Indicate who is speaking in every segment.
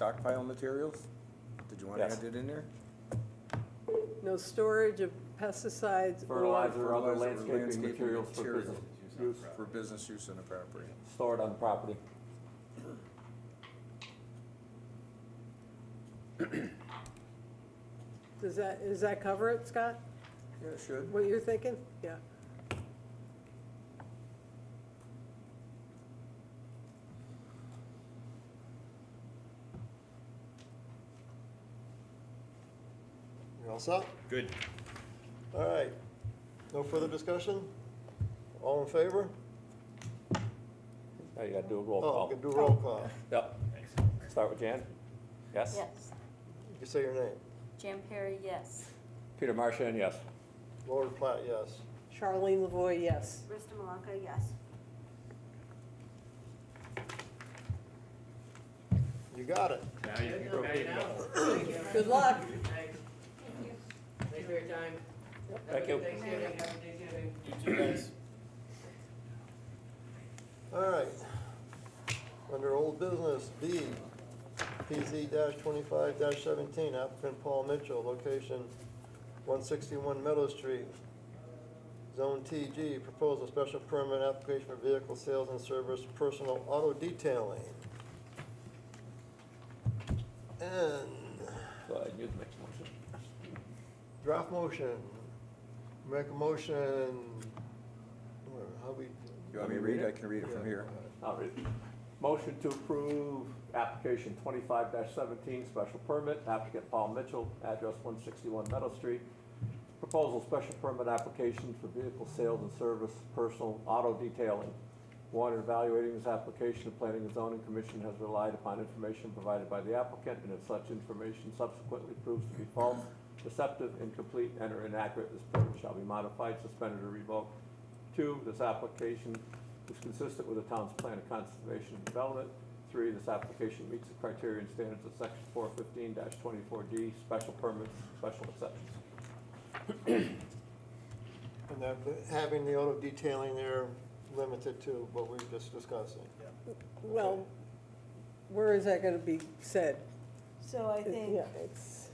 Speaker 1: stockpile materials? Did you want to
Speaker 2: Yes.
Speaker 1: add it in there?
Speaker 3: No storage of pesticides
Speaker 2: Fertilizer.
Speaker 3: or,
Speaker 2: For other
Speaker 1: Fertilizer or
Speaker 2: landscaping materials for
Speaker 1: material
Speaker 2: business use.
Speaker 1: For business use on the property.
Speaker 2: stored on property.
Speaker 3: does that, does that cover it, Scott?
Speaker 1: Yeah, it should.
Speaker 3: What you're thinking? Yeah.
Speaker 4: You all set?
Speaker 5: Good.
Speaker 4: All right. No further discussion? All in favor?
Speaker 2: Now you gotta do a roll
Speaker 4: Oh,
Speaker 2: call.
Speaker 4: we can do roll call.
Speaker 2: Yep. Start with Jan? Yes?
Speaker 6: Yes.
Speaker 4: You can say your name.
Speaker 6: Jan Perry, yes.
Speaker 2: Peter Martian, yes.
Speaker 4: Laura Platt, yes.
Speaker 3: Charlene Lavoy, yes.
Speaker 6: Rista Malaka, yes.
Speaker 4: You got it.
Speaker 5: Now you can go get it.
Speaker 3: Good luck.
Speaker 7: Thanks. Thanks for your time.
Speaker 2: Thank you.
Speaker 7: Have a good Thanksgiving, happy Thanksgiving.
Speaker 4: All right. Under old business, B, PZ twenty-five seventeen, applicant Paul Mitchell, location one sixty-one Meadow Street. Zone TG, proposal special permit application for vehicle sales and service, personal auto detailing. And
Speaker 2: Go ahead, you can make the motion.
Speaker 4: draft motion, make a motion, where, how we?
Speaker 1: You want me to read? I can read it from here.
Speaker 2: All right. Motion to approve application twenty-five seventeen, special permit, applicant Paul Mitchell, address one sixty-one Meadow Street. Proposal special permit application for vehicle sales and service, personal auto detailing. One, in evaluating this application, the Planning and Zoning Commission has relied upon information provided by the applicant, and if such information subsequently proves to be false, deceptive, incomplete, and or inaccurate, this permit shall be modified, suspended, or revoked. Two, this application is consistent with the town's plan of conservation and development. Three, this application meets the criteria and standards of section four fifteen twenty-four D, special permits, special exceptions.
Speaker 4: And that, having the auto detailing there limited to what we were just discussing.
Speaker 3: Well, where is that gonna be said?
Speaker 6: So I think,
Speaker 3: Yeah, it's,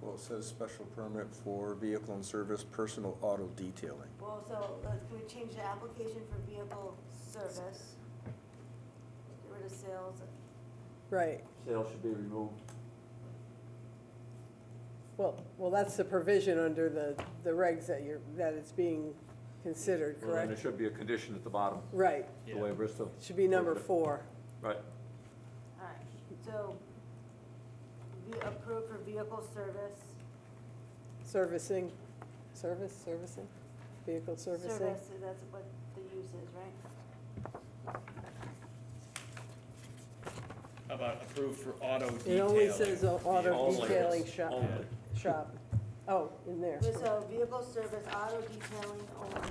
Speaker 1: Well, it says special permit for vehicle and service personal auto detailing.
Speaker 6: well, so let's- we change the application for vehicle service. Get rid of sales.
Speaker 3: right.
Speaker 2: Sales should be removed.
Speaker 3: Well, well, that's the provision under the, the regs that you're, that it's being considered,
Speaker 2: And there
Speaker 3: correct?
Speaker 2: should be a condition at the bottom,
Speaker 3: Right.
Speaker 2: the way Bristol.
Speaker 3: It Should be number four.
Speaker 2: Right.
Speaker 6: All right, so we approve for vehicle service.
Speaker 3: Servicing, service, servicing, vehicle servicing.
Speaker 6: Service, that's what the use is, right?
Speaker 5: How about approved for auto detailing?
Speaker 3: It only says a- auto
Speaker 5: Only.
Speaker 3: detailing shop,
Speaker 5: Only.
Speaker 3: shop. Oh, in there.
Speaker 6: So vehicle service, auto detailing only.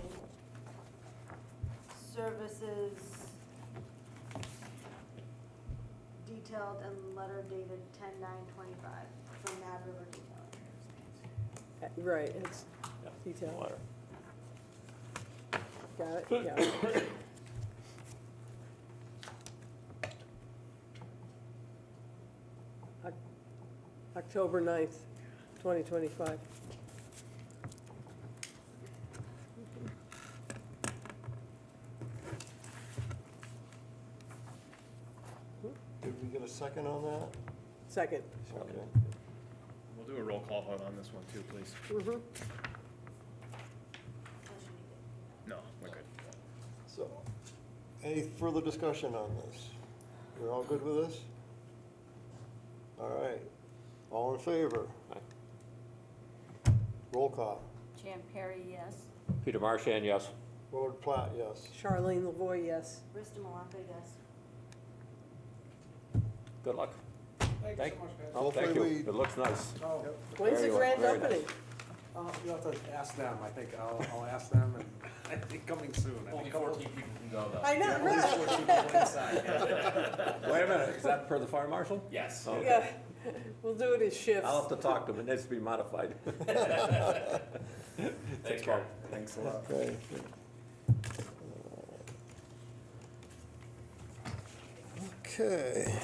Speaker 6: Services detailed and letter dated ten nine twenty-five from Mad River Detailing.
Speaker 3: Right, it's
Speaker 2: Yeah.
Speaker 3: detail.
Speaker 2: Letter.
Speaker 3: Got it, yeah. Oc- October 9th, twenty twenty-five.
Speaker 4: Did we get a second on that?
Speaker 3: Second.
Speaker 4: Okay.
Speaker 5: We'll do a roll call vote on this one too, please.
Speaker 3: Mhm.
Speaker 5: No, we're good.
Speaker 4: So, any further discussion on this? We're all good with this? All right. All in favor?
Speaker 2: Aye.
Speaker 4: Roll call.
Speaker 6: Jan Perry, yes.
Speaker 2: Peter Marshan, yes.
Speaker 4: Willard Platt, yes.
Speaker 3: Charlene Lavoy, yes.
Speaker 6: Rista Malaka, yes.
Speaker 2: Good luck. Thank you so much, Oh,
Speaker 4: Hopefully
Speaker 2: thank you.
Speaker 4: we-
Speaker 2: It looks nice.
Speaker 8: Oh,
Speaker 3: When's the
Speaker 2: Very well,
Speaker 3: grand
Speaker 2: very
Speaker 3: opening?
Speaker 2: nice.
Speaker 8: uh, you'll have to ask them, I think, I'll, I'll ask them, and I think coming soon. I
Speaker 5: Only
Speaker 8: think a couple-
Speaker 5: fourteen people can go though.
Speaker 3: I know,
Speaker 8: At least
Speaker 3: right?
Speaker 8: four people inside, yeah.
Speaker 2: Wait a minute, is that per the fire marshal?
Speaker 5: Yes.
Speaker 2: Okay.
Speaker 3: Yeah, we'll do it as shifts.
Speaker 2: I'll have to talk to him, it needs to be modified.
Speaker 5: Thanks, Mark.
Speaker 1: Thanks a lot.
Speaker 4: Okay. Okay.